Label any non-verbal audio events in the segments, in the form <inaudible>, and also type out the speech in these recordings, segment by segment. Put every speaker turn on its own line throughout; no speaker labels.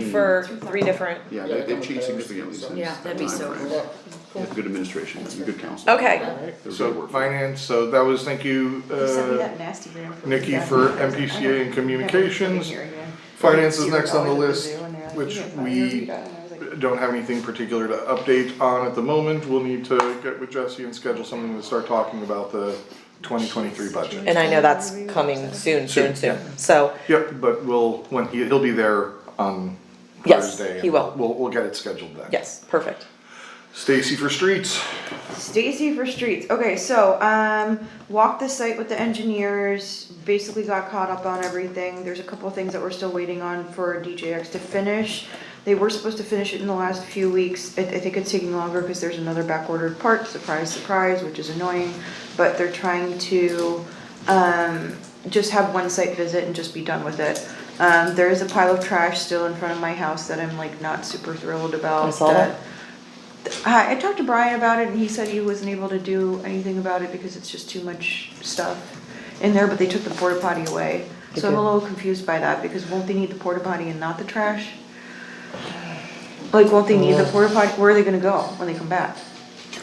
for three different,
Yeah,
Yeah,
they, they've
they
changed
don't
significantly since.
Yeah,
that
that'd be
time
so
frame.
cool.
They have Good administration, and good council.
okay,
They're good
So
work.
finance, so that was, thank you, uh, Nikki for MPCA and communications. Finance is next on the list, which we don't have anything particular to update on at the moment. We'll need to get with Jesse and schedule something to start talking about the twenty twenty-three budget.
and I know that's coming soon, soon, soon, so,
Yep, but we'll, when, he- he'll be there on
Yes,
Thursday.
he
and
will.
We'll, we'll get it scheduled then.
yes, perfect.
Stacy for streets.
Stacy for streets. Okay, so um, walked the site with the engineers. Basically, got caught up on everything. There's a couple of things that we're still waiting on for DJX to finish. They were supposed to finish it in the last few weeks. I, I think it's taking longer because there's another back ordered part. Surprise, surprise, which is annoying. But they're trying to um, just have one site visit and just be done with it. Um, there is a pile of trash still in front of my house that I'm like not super thrilled about.
I saw that.
I, I talked to Brian about it and he said he wasn't able to do anything about it because it's just too much stuff in there, but they took the porta potty away. So I'm a little confused by that because won't they need the porta potty and not the trash? Like, won't they need
Uh.
the porta potty? Where are they gonna go when they come back?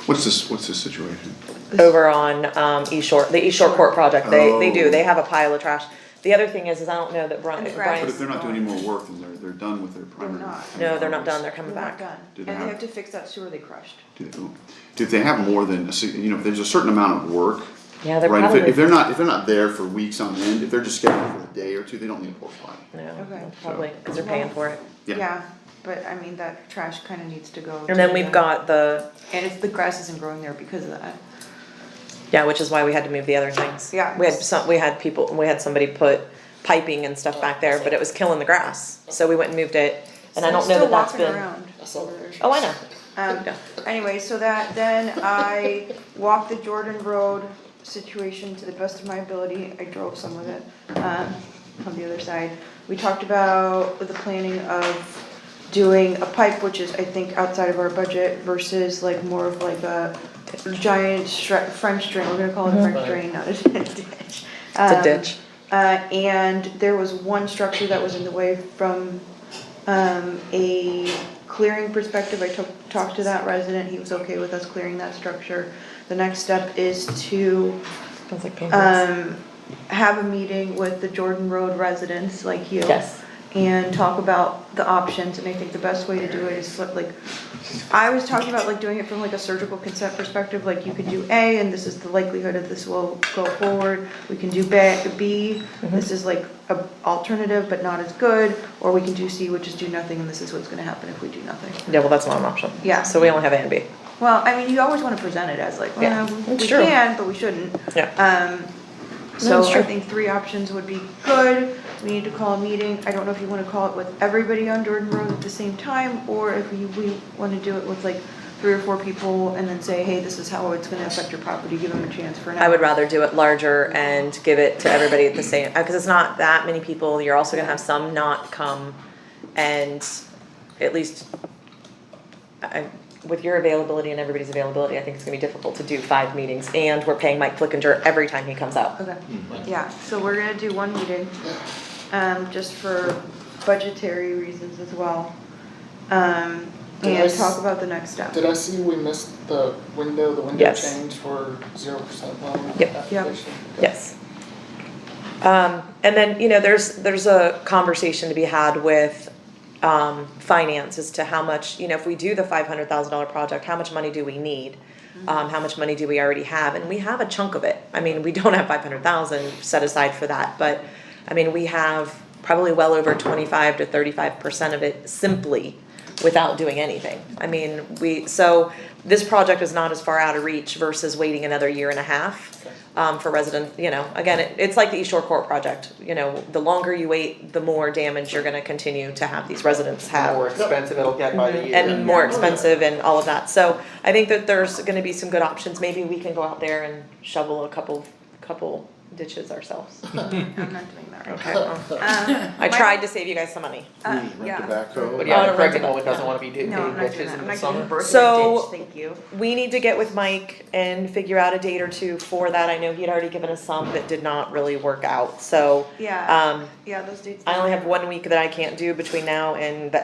What's this, what's this situation?
Over on, um, East Shore, the East Shore Court project, they, they do, they have a pile of trash. The other thing is, is I don't know that Brian,
And
But if
Brian's,
they're not doing any more work, then they're, they're done with their primary.
not.
no, they're not done, they're
They're
coming
not
back.
done.
Did
And
it
they
have-
have to fix that sewer they crushed.
Do they- ooh. If they have more than, a se- you know, if there's a certain amount of work.
Yeah, they're
right, if
probably-
If they're not, if they're not there for weeks on end, if they're just scheduled for a day or two, they don't need a porta potty.
No,
Okay.
probably, cause they're paying for it.
Yeah.
but I mean, that trash kinda needs to go.
And then
to
we've
the-
got the,
And if the grass isn't growing there because of that.
yeah, which is why we had to move the other things.
Yeah.
We had some, we had people, we had somebody put piping and stuff back there, but it was killing the grass, so we went and moved it, and I don't know that that's
Still walking
been.
around.
I saw that.
Oh, I know,
Um,
Yeah.
anyway, so that, then I walked the Jordan Road situation to the best of my ability, I drove some of it, um, on the other side. We talked about the planning of doing a pipe, which is, I think, outside of our budget versus like more of like a giant stre- French drain, we're gonna call it a French drain, not a <laughs> ditch.
it's a
Um,
ditch.
uh, and there was one structure that was in the way from, um, a clearing perspective, I took, talked to that resident, he was okay with us clearing that structure. The next step is to,
Sounds like pancakes.
um, have a meeting with the Jordan Road residents like you.
Yes.
And talk about the options, and I think the best way to do it is like, I was talking about like doing it from like a surgical consent perspective, like you could do A, and this is the likelihood of this will go forward. We can do B, B,
Mm-hmm.
this is like a alternative but not as good, or we can do C, which is do nothing, and this is what's gonna happen if we do nothing.
Yeah, well, that's not an option.
Yeah.
So we only have A and B.
Well, I mean, you always wanna present it as like,
Yeah,
well, we
it's true.
can, but we shouldn't.
Yeah.
Um,
No,
so
it's true.
I think three options would be good. We need to call a meeting. I don't know if you wanna call it with everybody on Jordan Road at the same time, or if we, we wanna do it with like three or four people and then say, hey, this is how it's gonna affect your property, give them a chance for an hour.
I would rather do it larger and give it to everybody at the same, because it's not that many people. You're also gonna have some not come. And at least I, with your availability and everybody's availability, I think it's gonna be difficult to do five meetings. And we're paying Mike Flickinger every time he comes out.
Okay, yeah, so we're gonna do one meeting, um, just for budgetary reasons as well. Um, and
Yes.
talk about the next step.
Did I see we missed the window, the window
Yes.
change for zero percent loan
Yep.
application?
Yep.
Yes. Um, and then, you know, there's, there's a conversation to be had with, um, finance as to how much, you know, if we do the five hundred thousand dollar project, how much money do we need? Um, how much money do we already have? And we have a chunk of it. I mean, we don't have five hundred thousand set aside for that, but, I mean, we have probably well over twenty-five to thirty-five percent of it simply without doing anything. I mean, we, so this project is not as far out of reach versus waiting another year and a half um, for resident, you know, again, it, it's like the East Shore Court project, you know, the longer you wait, the more damage you're gonna continue to have these residents have.
more expensive it'll get by the year.
Mm-hmm. And more expensive and all of that, so I think that there's gonna be some good options, maybe we can go out there and shovel a couple, couple ditches ourselves.
I'm not doing that right
Okay, well,
now. Um,
I tried to save you guys some money.
Uh,
Rent
yeah.
tobacco.
But
On
yeah,
a
the Craig
regular-
Nolan doesn't wanna be doing
No, I'm not doing
ditches
that, I'm
in the
not doing
summer.
birthday
So-
ditch, thank you.
we need to get with Mike and figure out a date or two for that. I know he'd already given us some that did not really work out, so.
Yeah,
Um,
yeah, those dates.
I only have one week that I can't do between now and the